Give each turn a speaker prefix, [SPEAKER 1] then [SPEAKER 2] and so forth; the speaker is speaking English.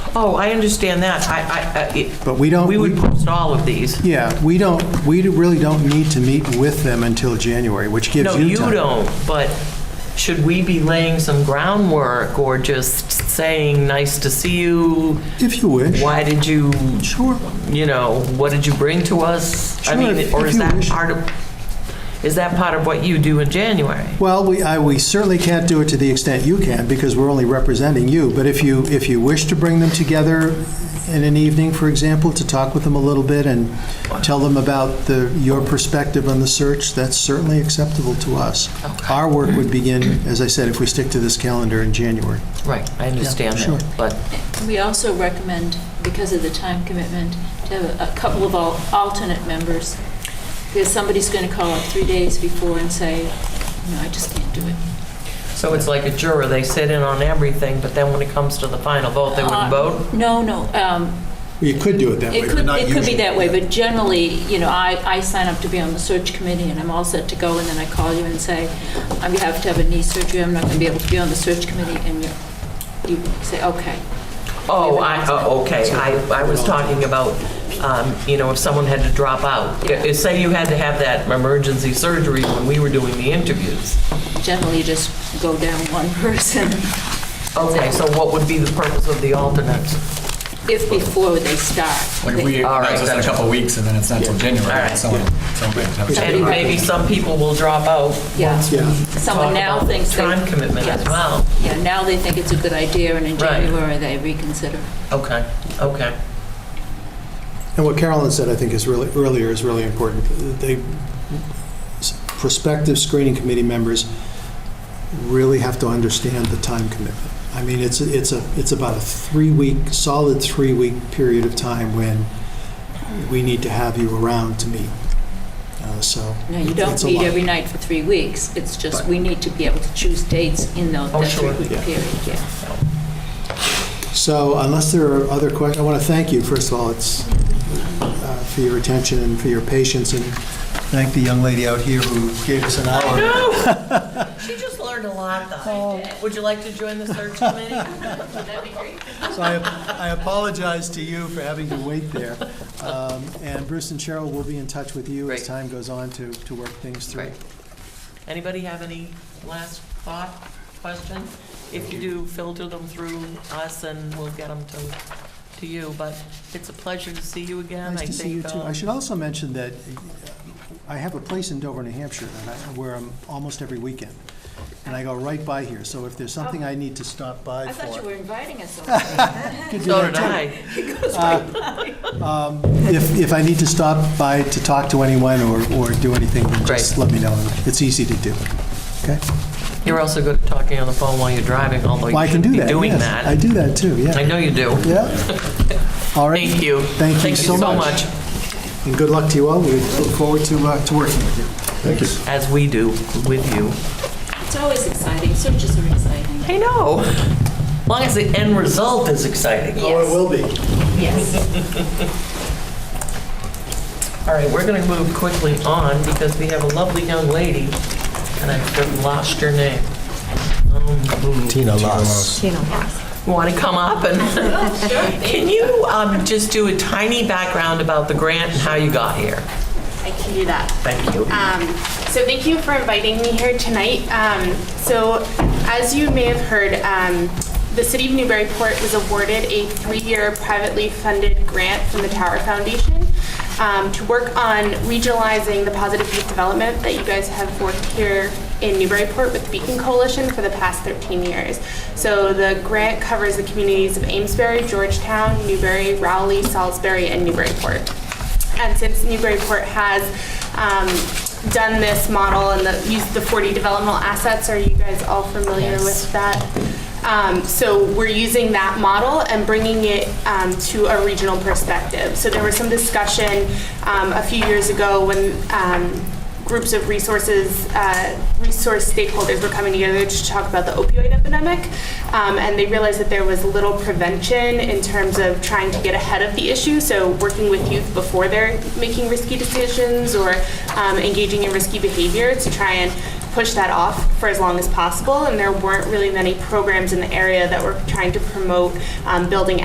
[SPEAKER 1] Oh, I understand that. I, I- I, it-
[SPEAKER 2] But we don't-
[SPEAKER 1] We would post all of these.
[SPEAKER 2] Yeah, we don't, we really don't need to meet with them until January, which gives
[SPEAKER 1] No,
[SPEAKER 2] you
[SPEAKER 1] you
[SPEAKER 2] time.
[SPEAKER 1] don't, but should we be laying some groundwork or just saying, nice to see you?
[SPEAKER 2] If you wish.
[SPEAKER 1] Why did you?
[SPEAKER 2] Sure.
[SPEAKER 1] You know, what did you bring to us? I
[SPEAKER 2] Sure,
[SPEAKER 1] mean,
[SPEAKER 2] if-
[SPEAKER 1] or
[SPEAKER 2] if
[SPEAKER 1] is
[SPEAKER 2] you
[SPEAKER 1] that
[SPEAKER 2] wish.
[SPEAKER 1] part of, is that part of what you do in January?
[SPEAKER 2] Well, we, I, we certainly can't do it to the extent you can, because we're only representing you. But if you, if you wish to bring them together in an evening, for example, to talk with them a little bit and tell them about the, your perspective on the search, that's certainly acceptable to us.
[SPEAKER 1] Okay.
[SPEAKER 2] Our work would begin, as I said, if we stick to this calendar in January.
[SPEAKER 1] Right, I understand
[SPEAKER 2] sure.
[SPEAKER 1] that, but,
[SPEAKER 3] We also recommend, because of the time commitment, to have a couple of al- alternate members, because somebody's going to call up three days before and say, no, I just can't do it.
[SPEAKER 1] so it's like a juror, they sit in on everything, but then when it comes to the final vote, they
[SPEAKER 3] Uh,
[SPEAKER 1] wouldn't vote?
[SPEAKER 3] No, no, um,
[SPEAKER 2] You could do it that
[SPEAKER 3] it could, it could be that way, but generally, you know, I, I sign up to be on the search committee, and I'm all set to go, and then I call you and say, I'm going to have to have a knee surgery, I'm not going to be able to be on the search committee, and you, you say, okay.
[SPEAKER 1] Oh, I, oh, okay, I, I was talking about, um, you know, if someone had to drop out. Uh, Say you had to have that emergency surgery when we were doing the interviews.
[SPEAKER 3] Generally, you just go down one person.
[SPEAKER 1] Okay, so what would be the purpose of the alternates?
[SPEAKER 3] if before they start.
[SPEAKER 4] Like, we,
[SPEAKER 1] All right,
[SPEAKER 4] that's just in a
[SPEAKER 1] gotcha.
[SPEAKER 4] couple of weeks, and then it's not until
[SPEAKER 1] All
[SPEAKER 4] January,
[SPEAKER 1] right.
[SPEAKER 4] so, so we have to have a-
[SPEAKER 1] And maybe some people will drop out.
[SPEAKER 3] Yeah.
[SPEAKER 2] Yeah.
[SPEAKER 3] Someone now
[SPEAKER 1] Talk about
[SPEAKER 3] thinks. they-
[SPEAKER 1] Time commitment as
[SPEAKER 3] Yes.
[SPEAKER 1] well.
[SPEAKER 3] Yeah, now they think it's a good idea, and in
[SPEAKER 1] Right.
[SPEAKER 3] January, they reconsider.
[SPEAKER 1] Okay, okay.
[SPEAKER 2] And what Carolyn said, I think, is really, earlier is really important. They, prospective screening committee members really have to understand the time commitment. I mean, it's, a- it's a, it's about a three-week, solid three-week period of time when we need to have you around to meet. Uh, So.
[SPEAKER 3] No, you don't
[SPEAKER 2] it's a
[SPEAKER 3] meet
[SPEAKER 2] lot.
[SPEAKER 3] every night for three weeks. It's just,
[SPEAKER 2] Right.
[SPEAKER 3] we need to be able to choose dates in those,
[SPEAKER 1] Oh,
[SPEAKER 3] that
[SPEAKER 1] sure,
[SPEAKER 3] three-week
[SPEAKER 2] yeah.
[SPEAKER 3] period, yeah.
[SPEAKER 2] So unless there are other questions, I want to thank you, first of all, it's, uh, for your attention and for your patience, and thank the young lady out here who gave us an hour.
[SPEAKER 1] She just learned a lot, though. Would you like to join the search committee?
[SPEAKER 2] So I I apologize to you for having to wait there. Um, And Bruce and Cheryl will be in touch with you as
[SPEAKER 1] Great.
[SPEAKER 2] time goes on to, to work things through.
[SPEAKER 1] Great. Anybody have any last thought, question? If you do, filter them through us and we'll get them to, to you. But it's a pleasure to see you again.
[SPEAKER 2] Nice
[SPEAKER 1] I
[SPEAKER 2] to see you
[SPEAKER 1] think,
[SPEAKER 2] too.
[SPEAKER 1] um,
[SPEAKER 2] I should also mention that uh, I have a place in Dover, New Hampshire, and I, where I'm almost every weekend. And I go right by here, so if there's something I need to stop by
[SPEAKER 3] Oh, I thought you
[SPEAKER 2] for.
[SPEAKER 3] were inviting us over.
[SPEAKER 2] Could do
[SPEAKER 1] So
[SPEAKER 2] that
[SPEAKER 1] did
[SPEAKER 2] too.
[SPEAKER 1] I.
[SPEAKER 2] If, if I need to stop by to talk to anyone or, or do anything, then just
[SPEAKER 1] Great.
[SPEAKER 2] let me know. It's easy to do. Okay?
[SPEAKER 1] You're also good at talking on the phone while you're driving, although
[SPEAKER 2] Well, I
[SPEAKER 1] you
[SPEAKER 2] can
[SPEAKER 1] should
[SPEAKER 2] do
[SPEAKER 1] be
[SPEAKER 2] that,
[SPEAKER 1] doing
[SPEAKER 2] yes. I
[SPEAKER 1] that.
[SPEAKER 2] do that too, yeah.
[SPEAKER 1] I know you do.
[SPEAKER 2] Yeah. All right.
[SPEAKER 1] Thank you.
[SPEAKER 2] Thank you so much.
[SPEAKER 1] so much,
[SPEAKER 2] And good luck to you all. We look forward to, uh, to working with you. Thank you.
[SPEAKER 1] as we do with you.
[SPEAKER 3] It's always exciting, searches are exciting.
[SPEAKER 1] I know. As long as the end result is exciting.
[SPEAKER 2] Oh, it will be.
[SPEAKER 3] Yes.
[SPEAKER 1] All right, we're going to move quickly on because we have a lovely young lady, and I've lost your name.
[SPEAKER 2] Tina Loss.
[SPEAKER 1] Want to come up and, can you um, just do a tiny background about the grant and how you got here?
[SPEAKER 5] I can do that.
[SPEAKER 1] Thank you.
[SPEAKER 5] Um, so thank you for inviting me here tonight. Um, so as you may have heard, um, the City of Newburyport was awarded a three-year privately funded grant from the Tower Foundation um, to work on regionalizing the positive youth development that you guys have worked here in Newburyport with the Beacon Coalition for the past 13 years. So the grant covers the communities of Amesbury, Georgetown, Newbury, Rowley, Salisbury, and Newburyport. And since Newburyport has um, done this model and the, used the 40 developmental assets, are you guys all familiar with that? Um, so we're using that model and bringing it um, to a regional perspective. So there was some discussion um, a few years ago when um, groups of resources, uh, resource stakeholders were coming together to talk about the opioid epidemic, um, and they realized that there was little prevention in terms of trying to get ahead of the issue. So working with youth before they're making risky decisions or um, engaging in risky behavior to try and push that off for as long as possible. And there weren't really many programs in the area that were trying to promote um, building